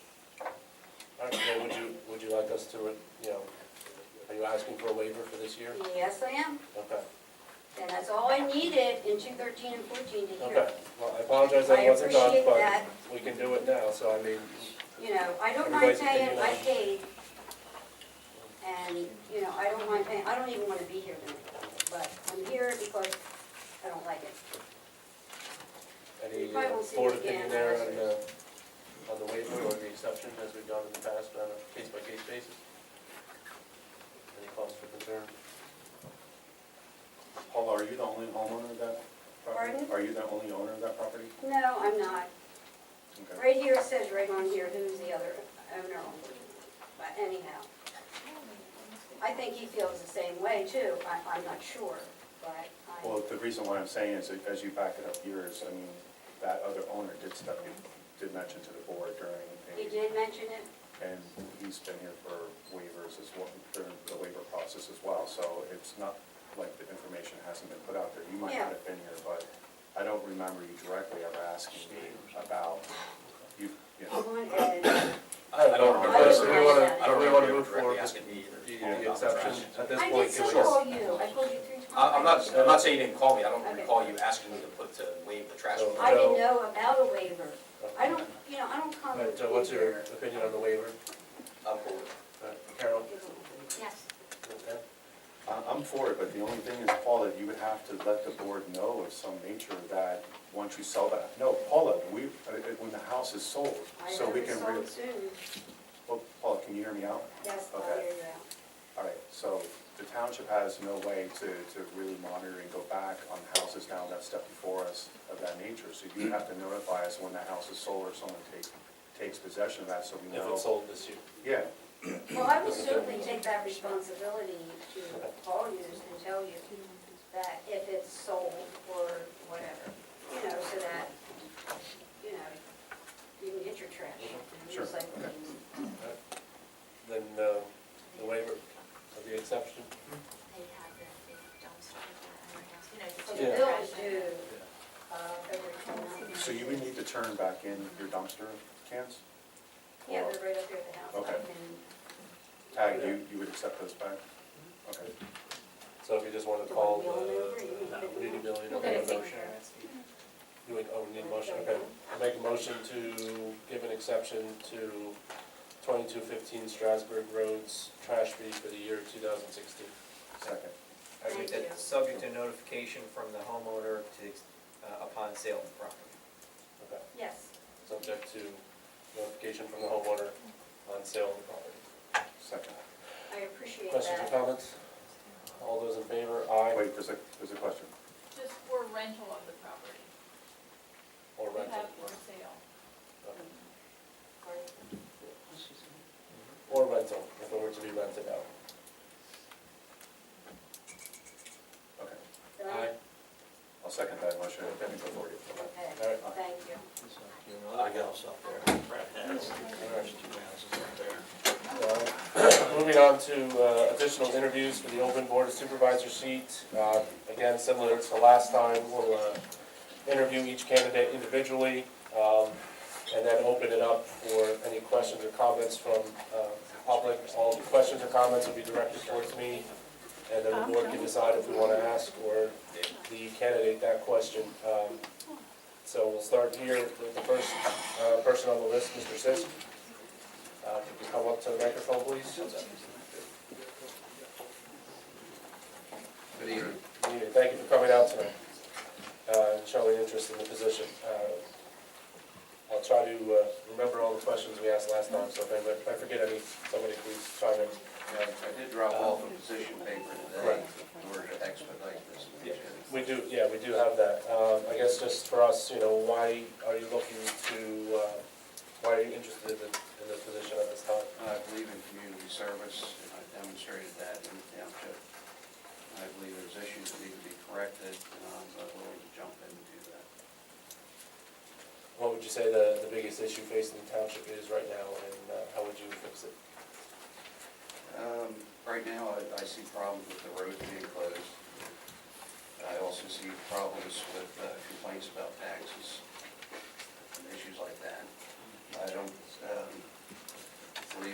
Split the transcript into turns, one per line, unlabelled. like us to, you know, are you asking for a waiver for this year?
Yes, I am.
Okay,
And that's all I needed in two thirteen and fourteen to hear.
okay. Well, I apologize that
I
it wasn't done,
appreciate
but
that.
we can do it now, so I mean,
You know, I don't mind
Everybody's
paying,
opinion
I
on it.
paid. And, you know, I don't mind paying, I don't even wanna be here tonight, but I'm here because I don't like it.
any
You probably
uh,
won't see
board
me
opinion
again.
there on the, on the waiver or the exception as we've done in the past on a case-by-case basis? Any cause for concern?
Paul, are you the only homeowner of that property?
Pardon?
Are you the only owner of that property?
No, I'm not.
Okay.
Right here it says right on here who's the other owner, but anyhow. I think he feels the same way too, I, I'm not sure, but I.
Well, the reason why I'm saying is that as you back it up yours, I mean, that other owner did step, did mention to the board
He
during, the-
did mention it,
and he's been here for waivers as well, during the waiver process as well, so it's not like the information hasn't been put out there. You might
Yeah.
not have been here, but I don't remember you directly ever asking me about, you, you
come
know,
on Ed.
I
don't
know.
remember.
I just- we wanna-
I
we
remember
wanna
you
move
directly
forward
asking
with
me either.
the-
Yeah.
The exception at this
I
point.
did so
can we-
call you, I called you three times.
I- I'm not, I'm not saying you didn't call me, I don't
Okay.
recall you asking me to put, to waive the trash.
So-
fee.
I didn't know about a waiver, I don't, you know, I don't come
Alright, so what's your
here.
opinion on the waiver?
I'm cool with it.
Uh, Carol?
Yes,
Okay.
I- I'm for it, but the only thing is, Paula, you would have to let the board know of some nature that, once you sell that, no, Paula, we, uh, uh, when the house is sold,
I
so
know
we
it's
can.
sold
re-
soon,
Well, Paula, can you hear me out?
yes, I'll
Okay.
hear you out.
All right, so the township has no way to, to really monitor and go back on houses now that step before us of that nature. So you have to notify us when the house is sold or someone takes, takes possession of that, so we know.
If it's sold this year.
Yeah,
Well, I will certainly take that responsibility to call you and tell you that if it's sold or whatever, you know, so that, you know, you can get your trash and
Sure.
recycle
Okay.
things.
Alright. Then uh, the waiver of the exception.
they have the big dumpster at our house, you know,
So
just
the
Yeah.
bill
trash
is
and-
due, uh, February 29th.
so you would need to turn back in your dumpster cans?
Yeah, they're right up here at the house.
Okay. Tag, you, you would accept those back? Okay.
So if you just want to call
Do I mail it over?
the, uh,
You
no,
need to
we need a
do
million,
We'll
okay,
get
a
it taken
motion.
care of.
You would, oh, we need a motion, okay. I make a motion to give an exception to twenty-two fifteen Strasburg Roads trash fee for the year two thousand sixteen.
Second.
I read
Thank you.
that subject to notification from the homeowner to, ex- uh, upon sale of the property.
Okay,
Yes,
subject to notification from the homeowner on sale of the property.
Second.
I appreciate
Questions or
that.
comments? All those in favor, aye,
Oh, Wait, there's a, there's a question.
Just for rental of the property.
or
We
rental?
have for sale.
Okay. Or rental, if it were to be rented out.
Okay.
Done?
Aye.
I'll second that motion. Then we go forward.
Okay,
All right.
thank you.
I got us up there. Brad has, there's two houses up there.
Uh, Moving on to uh, additional interviews for the open board of supervisor seat. Uh, Again, similar to last time, we'll uh, interview each candidate individually um, and then open it up for any questions or comments from uh, public. All the questions or comments will be directed towards me, and then the board can decide if we want to ask or the candidate that question. Um, So we'll start here with the first uh, person on the list, Mr. Sisk. Uh, Could you come up to the microphone, please?
Good evening.
Good evening. Thank you for coming out tonight, uh, and showing interest in the position. Uh, I'll try to uh, remember all the questions we asked last time, so if anybody- if I forget any, somebody please chime in. Uh,
I did drop off a position paper today in order to expedite this.
Yeah. We do, yeah, we do have that. Um, I guess just for us, you know, why are you looking to, uh, why are you interested in in this position at this time?
I believe in community service, and I demonstrated that in the township. I believe there's issues that need to be corrected, and I'm uh, willing to jump in and do that.
What would you say the the biggest issue facing the township is right now, and uh, how would you fix it?
Um, Right now, I- I see problems with the roads being closed. I also see problems with uh, complaints about taxes and issues like that. I don't